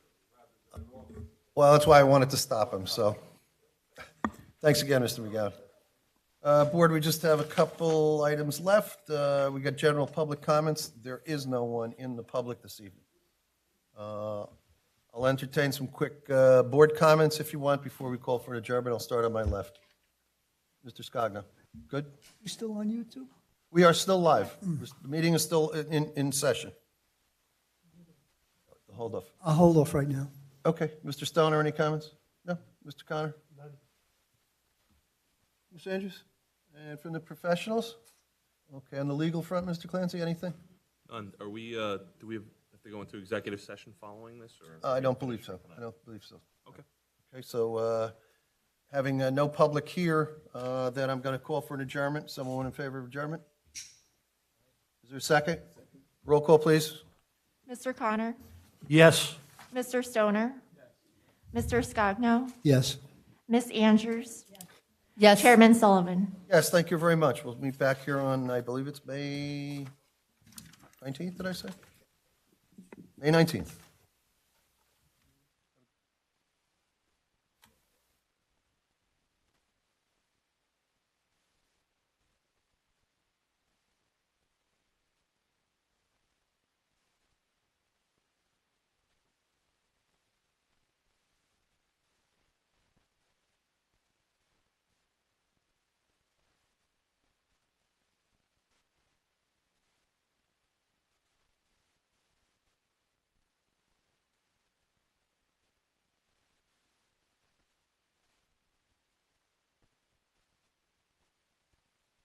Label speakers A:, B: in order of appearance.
A: Well, that's why I wanted to stop him, so. Thanks again, Mr. McGowan. Uh, Board, we just have a couple items left. Uh, We got general public comments. There is no one in the public this evening. Uh, I'll entertain some quick uh, board comments if you want before we call for an adjournment. I'll start on my left. Mr. Scogno, good?
B: You still on YouTube?
A: We are still live. The meeting is still in, in session. Hold off.
B: I'll hold off right now.
A: Okay, Mr. Stoner, any comments? No? Mr. Connor? None. Ms. Andrews? And from the professionals? Okay, on the legal front, Mr. Clancy, anything?
C: None. Are we, uh, do we have to go into executive session following this, or?
A: I don't believe so. I don't believe so.
C: Okay.
A: Okay, so uh, having uh, no public here, uh, then I'm going to call for an adjournment. Someone in favor of adjournment? Is there a second? Roll call, please.
D: Mr. Connor?
E: Yes.
D: Mr. Stoner? Mr. Scogno?
B: Yes.
D: Ms. Andrews?
F: Yes.
D: Chairman Sullivan?
A: Yes, thank you very much. We'll meet back here on, I believe it's May 19th, did I say? May 19th.